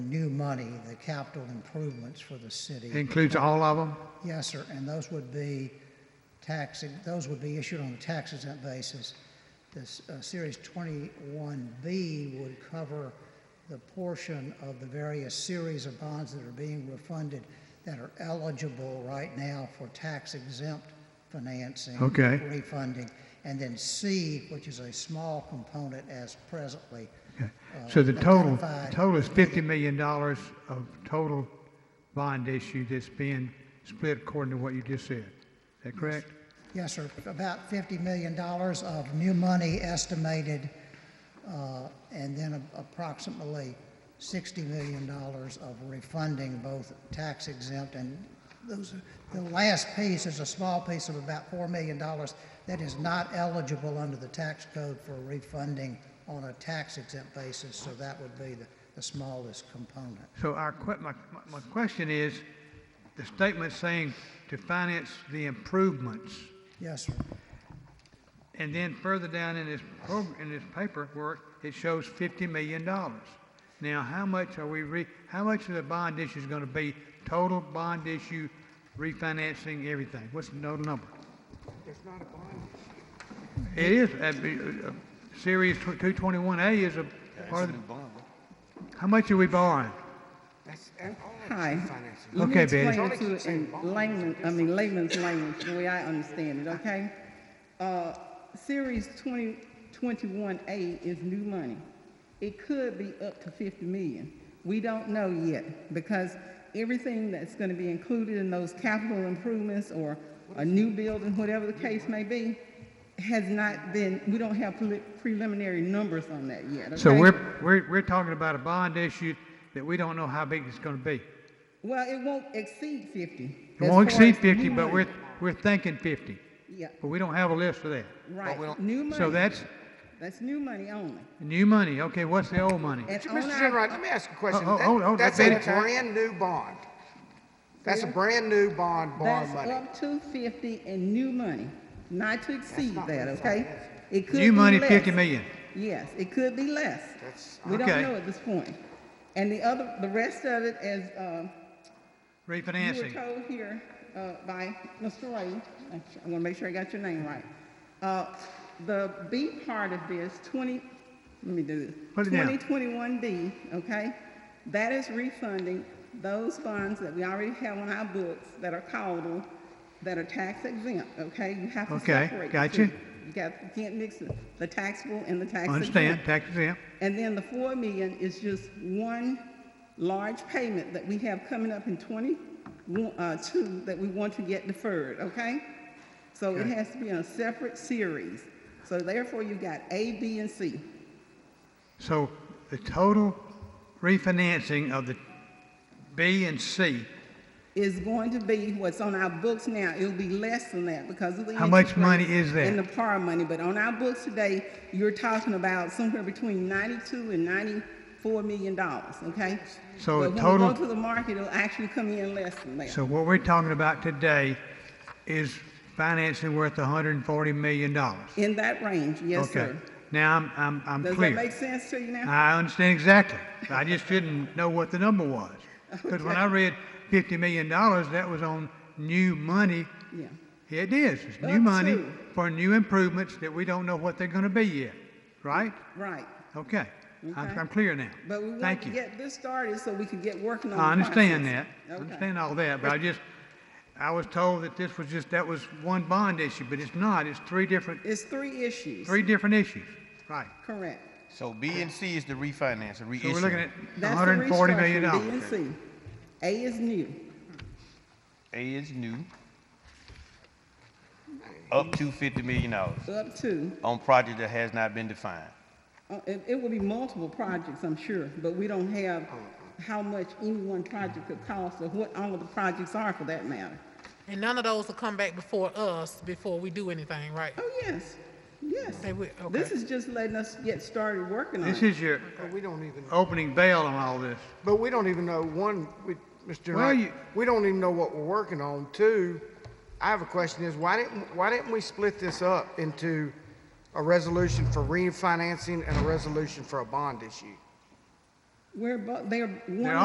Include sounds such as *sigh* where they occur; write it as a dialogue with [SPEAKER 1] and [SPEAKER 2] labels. [SPEAKER 1] new money, the capital improvements for the city.
[SPEAKER 2] Includes all of them?
[SPEAKER 1] Yes, sir, and those would be tax, those would be issued on a tax exempt basis. This, uh, Series 21B would cover the portion of the various series of bonds that are being refunded that are eligible right now for tax exempt financing.
[SPEAKER 2] Okay.
[SPEAKER 1] Refunding. And then C, which is a small component as presently.
[SPEAKER 2] So the total, the
[SPEAKER 1] identified.
[SPEAKER 2] total is $50 million of total bond issue that's being split according to what you just said. Is that correct?
[SPEAKER 1] Yes, sir. About $50 million of new money estimated, uh, and then approximately $60 million of refunding, both tax exempt and those, the last piece is a small piece of about $4 million that is not eligible under the tax code for refunding on a tax exempt basis, so that would be the, the smallest component.
[SPEAKER 2] So our, que- my, my- my question is, the statement saying to finance the improvements,
[SPEAKER 1] Yes, sir.
[SPEAKER 2] and then further down in this, prog- in this paperwork, it shows $50 million. Now, how much are we, re- how much of the bond issue is going to be total bond issue, refinancing, everything? What's the total number? There's not a bond issue. It is, uh, uh, Series 221A is a part of, the- how much are we borrowing?
[SPEAKER 3] Hi.
[SPEAKER 2] Okay, Betty.
[SPEAKER 3] Let me explain it to you in layman, I mean layman's language, the way I understand it, okay? Uh, Series 2021A is new money. It could be up to 50 million. We don't know yet because everything that's going to be included in those capital improvements or a new building, whatever the case may be, has not been, we don't have preli- preliminary numbers on that yet,
[SPEAKER 2] So
[SPEAKER 3] okay?
[SPEAKER 2] we're, we're, we're talking about a bond issue that we don't know how big it's gonna be.
[SPEAKER 3] Well, it won't exceed 50.
[SPEAKER 2] It
[SPEAKER 3] as
[SPEAKER 2] won't
[SPEAKER 3] far
[SPEAKER 2] exceed
[SPEAKER 3] as new
[SPEAKER 2] fifty, but
[SPEAKER 3] money.
[SPEAKER 2] we're, we're thinking fifty,
[SPEAKER 3] Yeah,
[SPEAKER 2] but we don't have a list for that.
[SPEAKER 3] right. New money.
[SPEAKER 2] So that's
[SPEAKER 3] That's new money only.
[SPEAKER 2] new money, okay, what's the old money?
[SPEAKER 3] And on
[SPEAKER 4] Mr.
[SPEAKER 3] our-
[SPEAKER 4] General, let me ask you a question.
[SPEAKER 2] Oh, oh, hold- hold,
[SPEAKER 4] That's
[SPEAKER 2] let
[SPEAKER 4] a
[SPEAKER 2] Betty-
[SPEAKER 4] brand-new bond. That's a brand-new bond, bond
[SPEAKER 3] That's
[SPEAKER 4] money.
[SPEAKER 3] up to fifty in new money, not to exceed that, okay? It could
[SPEAKER 2] New
[SPEAKER 3] be
[SPEAKER 2] money,
[SPEAKER 3] less.
[SPEAKER 2] fifty million.
[SPEAKER 3] Yes, it could be less.
[SPEAKER 4] That's-
[SPEAKER 3] We don't
[SPEAKER 2] Okay.
[SPEAKER 3] know at this point. And the other, the rest of it, as, um, You were
[SPEAKER 2] Refinancing,
[SPEAKER 3] told here uh, by Mr. Ray, I want to make sure I got your name right. Uh, The B part of this, 20, let me do this.
[SPEAKER 2] Put it down.
[SPEAKER 3] 2021B, okay? That is refunding those bonds that we already have on our books that are callable, that are tax exempt, okay? You have to
[SPEAKER 2] Okay,
[SPEAKER 3] separate. the
[SPEAKER 2] gotcha.
[SPEAKER 3] two. You got, you can't mix the- the taxable and the tax exempt.
[SPEAKER 2] understand, tax exempt,
[SPEAKER 3] And then the four million is just one large payment that we have coming up in twenty, uh, two, that we want to get deferred, okay? So it
[SPEAKER 2] Okay.
[SPEAKER 3] has to be on a separate series. So therefore, you got A, B, and C.
[SPEAKER 2] so the total refinancing of the B and C,
[SPEAKER 3] Is going to be what's on our books now. It'll be less than that because of the.
[SPEAKER 2] How much
[SPEAKER 3] interest rates
[SPEAKER 2] money is that?
[SPEAKER 3] And the par money, but on our books today, you're talking about somewhere between ninety-two and ninety-four million dollars, okay?
[SPEAKER 2] So
[SPEAKER 3] But
[SPEAKER 2] the
[SPEAKER 3] When
[SPEAKER 2] total-
[SPEAKER 3] we go to the market, it'll actually come in less than that.
[SPEAKER 2] so what we're talking about today is financing worth hundred and forty million dollars.
[SPEAKER 3] In that range, yes,
[SPEAKER 2] Okay,
[SPEAKER 3] sir.
[SPEAKER 2] now I'm, I'm, I'm clear.
[SPEAKER 3] Does that make sense to you now?
[SPEAKER 2] I understand exactly. I just didn't know what the number
[SPEAKER 3] *laughs*
[SPEAKER 2] was. Because when I read fifty million dollars, that was on new money.
[SPEAKER 3] Yeah.
[SPEAKER 2] It is, it's new
[SPEAKER 3] Up
[SPEAKER 2] money
[SPEAKER 3] to.
[SPEAKER 2] for new improvements that we don't know what they're gonna be yet, right?
[SPEAKER 3] Right.
[SPEAKER 2] Okay, I'm,
[SPEAKER 3] Okay.
[SPEAKER 2] I'm clear now.
[SPEAKER 3] But we want
[SPEAKER 2] Thank
[SPEAKER 3] to
[SPEAKER 2] you.
[SPEAKER 3] get this started so we can get working on the
[SPEAKER 2] I understand
[SPEAKER 3] process.
[SPEAKER 2] that, I
[SPEAKER 3] Okay.
[SPEAKER 2] understand all that, but I just, I was told that this was just, that was one bond issue, but it's not, it's three different,
[SPEAKER 3] It's three issues.
[SPEAKER 2] three different issues, right?
[SPEAKER 3] Correct.
[SPEAKER 5] So B and C is the refinance,
[SPEAKER 2] So
[SPEAKER 5] the reissue.
[SPEAKER 2] we're looking at
[SPEAKER 3] That's the
[SPEAKER 2] hundred and forty million
[SPEAKER 3] restructuring,
[SPEAKER 2] dollars.
[SPEAKER 3] B and C. A is new.
[SPEAKER 5] A is new, up to fifty million dollars
[SPEAKER 3] Up to,
[SPEAKER 5] on project that has not been defined.
[SPEAKER 3] uh, it, it will be multiple projects, I'm sure, but we don't have how much any one project could cost or what all of the projects are for that matter.
[SPEAKER 6] And none of those will come back before us before we do anything, right?
[SPEAKER 3] Oh, yes, yes.
[SPEAKER 6] They will, okay.
[SPEAKER 3] This is just letting us get started working on it.
[SPEAKER 2] This is your
[SPEAKER 4] But we don't even,
[SPEAKER 2] opening bail on all this.
[SPEAKER 4] but we don't even know, one, we, Mr.
[SPEAKER 2] Well,
[SPEAKER 4] General,
[SPEAKER 2] you-
[SPEAKER 4] we don't even know what we're working on. Two, I have a question is, why didn't, why didn't we split this up into a resolution for refinancing and a resolution for a bond issue?
[SPEAKER 3] We're, bo- they're one.
[SPEAKER 2] They're